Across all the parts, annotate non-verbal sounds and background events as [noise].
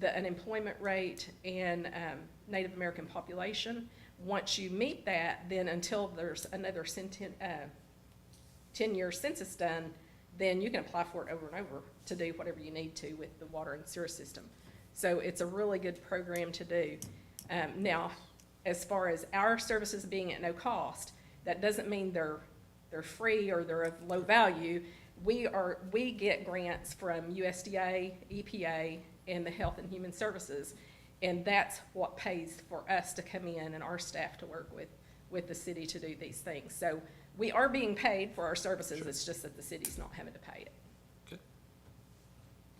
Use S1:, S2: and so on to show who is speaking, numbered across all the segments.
S1: the unemployment rate and um, Native American population. Once you meet that, then until there's another centen, uh, ten-year census done, then you can apply for it over and over to do whatever you need to with the water and sewer system. So it's a really good program to do. Um, now, as far as our services being at no cost, that doesn't mean they're, they're free or they're of low value. We are, we get grants from USDA, EPA, E and the Health and Human Services, and that's what pays for us to come in and our staff to work with, with the city to do these things. So we are being paid for our services, it's just that the city's not having to pay it.
S2: Okay.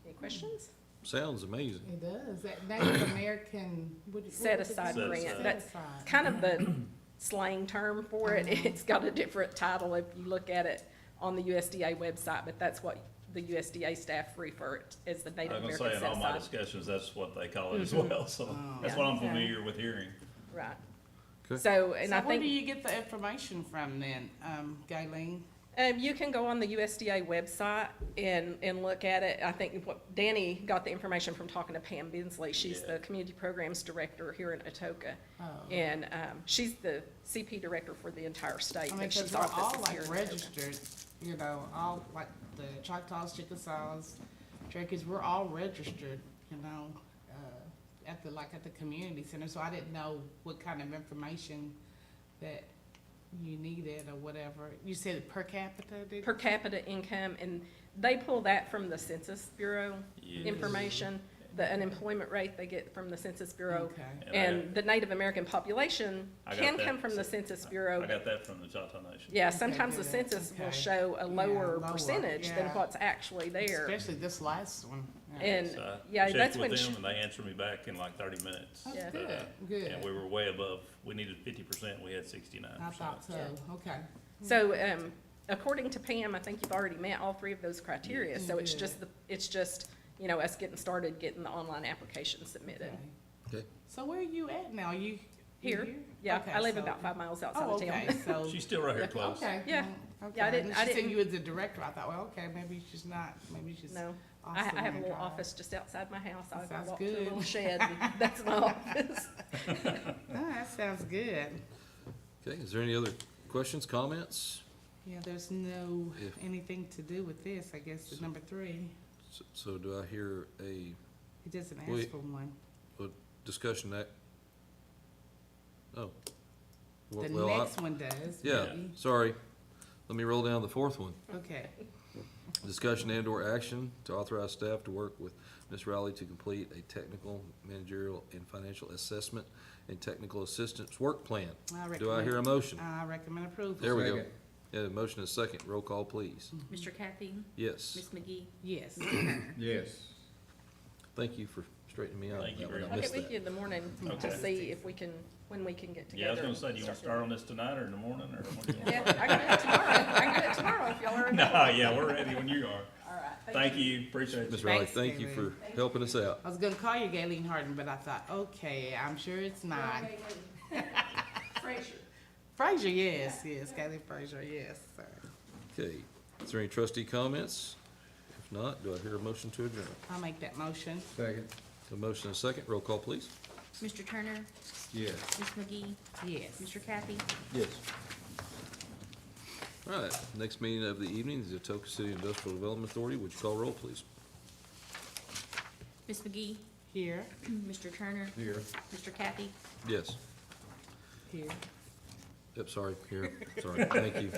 S1: Any questions?
S2: Sounds amazing.
S3: It does, that Native American. what- what
S1: Set
S3: was it?
S1: aside
S2: Set
S1: grant,
S2: aside.
S1: that's
S3: Set aside.
S1: kind of the slang term for it. [laughs] It's got a different title if you look at it on the USDA website, but that's what the USDA staff refer it as the
S4: I
S1: Native
S4: was
S1: American
S4: gonna say, in
S1: set
S4: all my
S1: aside.
S4: discussions, that's what they call it as
S3: Mm-hmm.
S4: well,
S3: Oh,
S4: so that's what I'm familiar with hearing.
S1: Right.
S2: Okay.
S1: So, and
S3: So
S1: I
S3: where do
S1: think,
S3: you get the information from then, um, Galen?
S1: um, you can go on the USDA website and, and look at it. I think what, Danny got the information from talking to Pam Bensley. She's
S4: Yeah.
S1: the Community Programs Director here in Atoka.
S3: Oh.
S1: And, um, she's the CP Director for the entire state,
S3: I mean,
S1: but
S3: cause
S1: she's
S3: we're all
S1: office is
S3: like
S1: here in Atoka.
S3: registered, you know, all like the Choctaws, Chickasaws, Cherokees, we're all registered, you know, uh, at the, like at the community center, so I didn't know what kind of information that you needed or whatever. You said per capita, did?
S1: per capita income, and they pull that from the Census Bureau information. The unemployment rate they get from the Census Bureau.
S3: Okay,
S1: And the Native American population
S4: I got
S1: can
S4: that.
S1: come from the Census
S4: I
S1: Bureau.
S4: got that from the Choctaw Nation.
S1: Yeah,
S3: Okay,
S1: sometimes the
S3: good.
S1: census will
S3: Okay.
S1: show a
S3: Yeah,
S1: lower
S3: lower,
S1: percentage than
S3: yeah.
S1: what's actually there.
S3: especially this last one. Yeah.
S1: And,
S4: So I
S1: yeah,
S4: checked
S1: that's
S4: with
S1: when, sh-
S4: them And they answered me back in like thirty minutes.
S1: Yeah.
S3: That's
S4: Uh,
S3: good, good.
S4: And we were way above, we needed fifty percent, we had sixty-nine
S3: I
S4: percent.
S3: thought so, okay.
S1: so, um, according to Pam, I think you've already met all three of those criteria.
S3: You
S1: So it's
S3: did.
S1: just, the it's just, you know, us getting started, getting the online application submitted.
S3: okay.
S2: Okay.
S3: So where are you at now? You? you
S1: Here, yeah,
S3: Okay,
S1: I live
S3: so-
S1: about five miles outside
S3: Oh,
S1: of town.
S3: okay, so.
S4: [laughs] She's still right here
S1: Yeah.
S4: close.
S3: Okay.
S1: Yeah.
S3: well,
S1: Yeah, I
S3: okay.
S1: didn't-
S3: And
S1: I
S3: She said
S1: didn't-
S3: you was the director. I thought, well, okay, maybe she's not, maybe she's.
S1: [laughs] No,
S3: off
S1: I, I have a
S3: somewhere
S1: little
S3: driving.
S1: office just outside my house. I I
S3: Sounds
S1: walk to a
S3: good.
S1: little
S3: [laughs]
S1: shed, and that's my office.
S3: Oh, that sounds good.
S2: Okay, is there any other questions, comments?
S3: Yeah, there's no,
S2: Yeah.
S3: anything to do with this, I guess, is number three.
S2: S- So do I hear a
S3: It doesn't
S2: Wait.
S3: ask for one.
S2: discussion that? Oh.
S3: The
S2: Well, well, I-
S3: next one does,
S2: Yeah,
S3: maybe.
S2: sorry. Let me roll down the fourth one.
S3: Okay,
S2: Discussion and/or action to authorize staff to work with Ms. Riley to complete a technical, managerial, and financial assessment and technical assistance work plan.
S3: I recommend.
S2: Do I hear a motion?
S3: I recommend approval.
S2: There we go.
S5: Second.
S2: Yeah, motion is second. Roll call, please.
S1: Mm-hmm.
S6: Mr. Kathy,
S2: Yes.
S6: Ms. McGee,
S3: Yes.
S5: Yes.
S2: Thank you for straightening me out.
S4: Thank
S2: on that
S4: you
S2: one.
S4: very
S2: I
S1: I'll
S2: missed
S1: get with
S2: that.
S1: you in the morning
S4: Okay.
S1: to see if we can, when we can get
S4: Yeah, I was
S1: together.
S4: gonna say, do you wanna start on this tonight or in the morning or? when do you want?
S1: Yeah, I can do it tomorrow. I can do it tomorrow if y'all are. in.
S4: [laughs] Nah, yeah, we're ready when you are.
S1: All right.
S4: Thank you, appreciate you.
S2: Ms. Riley,
S3: Thanks,
S2: thank you for
S3: David.
S2: helping us out.
S3: I was gonna call you Galen Harden, but I thought, okay, I'm sure it's not.
S1: Frazier.
S3: Frazier, yes, yes, Galen Frazier, yes, sir.
S2: Okay, is there any trustee comments? If not, do I hear a motion to adjourn?
S3: I'll make that motion.
S5: Second.
S2: A motion and a second. Roll call, please.
S6: Mr. Turner,
S5: Yes.
S6: Ms. McGee,
S3: Yes.
S6: Mr. Kathy,
S2: Yes. All right, next meeting of the evening is the Atoka City Industrial Development Authority. Would you call roll, please?
S6: Ms. McGee, [clears throat]
S3: Here,
S6: Mr. Turner,
S5: Here.
S6: Mr. Kathy,
S2: Yes.
S3: here.
S2: Yep, sorry, here, sorry, thank you.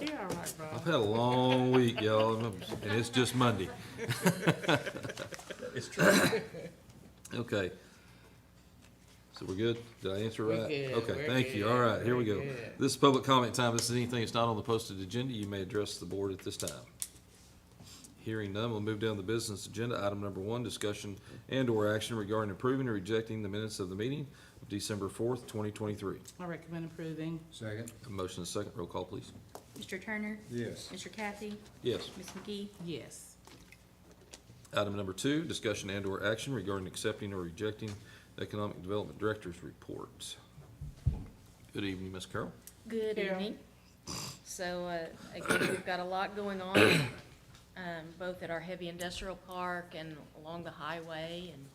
S3: You're all right, bro.
S2: I've had a long week, y'all, and I'm- and it's just Monday.
S4: It's true.
S2: Okay. So we're good? Did I answer
S3: We're
S2: right?
S3: good,
S2: Okay,
S3: we're
S2: thank you. All
S3: good,
S2: right, here we
S3: we're
S2: go.
S3: good.
S2: This is public comment time. This is anything that's not on the posted agenda. You may address the board at this time. Hearing none, we'll move down the business agenda. Item number one, discussion and/or action regarding approving or rejecting the minutes of the meeting of December fourth, twenty twenty-three.
S3: I recommend approving.
S5: Second.
S2: A motion and a second. Roll call, please.
S6: Mr. Turner,
S5: Yes.
S6: Mr. Kathy,
S2: Yes.
S6: Ms. McGee,
S3: Yes.
S2: Item number two, discussion and/or action regarding accepting or rejecting the Economic Development Director's report. Good evening, Ms. Carroll.
S7: Good
S3: Yeah.
S7: evening. So, uh, again, we've got a lot going on, um, both at our heavy industrial park and along the highway and